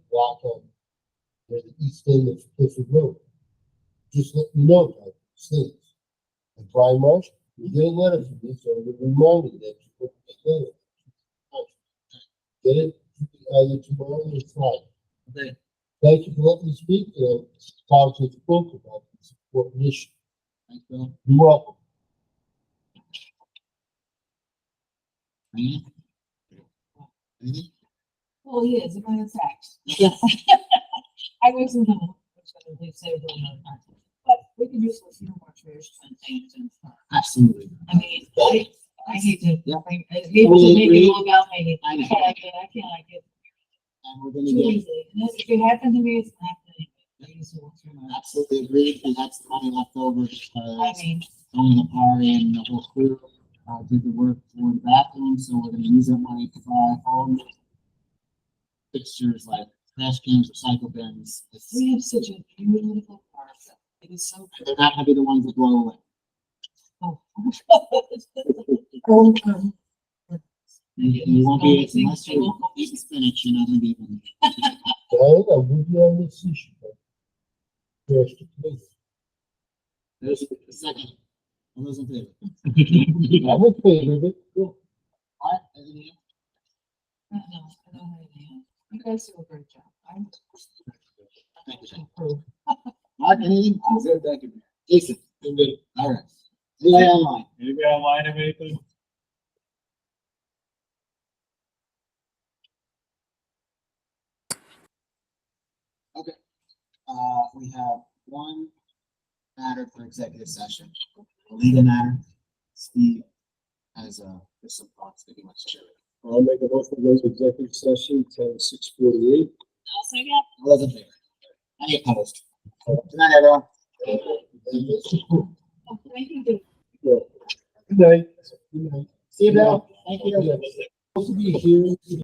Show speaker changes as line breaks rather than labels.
Waltham, or the east end of Clifford Road. Just let me know about these things. And Brian Marsh, you get a letter from me, so I'm gonna remind you that you put that letter. Get it either tomorrow or Friday.
Okay.
Thank you for letting me speak, and talk to the book about this important issue.
Thanks, Bill.
You're welcome.
Diana? Anything?
Well, he is, a matter of fact.
Yes.
I was in the, which I believe saved a lot of time. But we could use a few more trash can things and stuff.
Absolutely.
I mean, I, I hate to,
Yeah.
I I hate
We-
to make
we-
it all about me.
I know.
I can't, I can't, I can't, I get
And we're
too
gonna get,
easy. And if it happened to me, it's not happening. I used to work for
I
my-
absolutely agreed, and that's the money left over,
I
because
mean,
Tony Lapari and the whole crew, uh, did the work for the bathroom, so we're gonna use that money to buy all the fixtures like trash cans, recycle bins. It's-
we have such a beautiful park. It is so.
They're not gonna be the ones that blow away.
cool.
Oh, um,
You you won't be,
It's
unless
amazing.
you eat spinach, you're not gonna be able to.
Diane, I'm with you on this issue. but Just to please.
There's a second. All those in favor?
I'm in favor of it. Go.
All right, anything else?
I don't know, I don't have any idea. You guys do a great job. I'm
Thank you, Jason.
approved.
All right, anything? Thank you. Jason,
And then,
all right. Anybody online?
anybody online have anything?
Uh, we have one matter for executive session, a legal matter. Steve has, uh, there's some thoughts that he wants to share.
I'll make a motion to go to executive session, ten six forty-eight.
All those in favor? Any opposed? Good night, everyone.
Good night. Good night.
See you, Bill. Thank you.
Supposed to be here.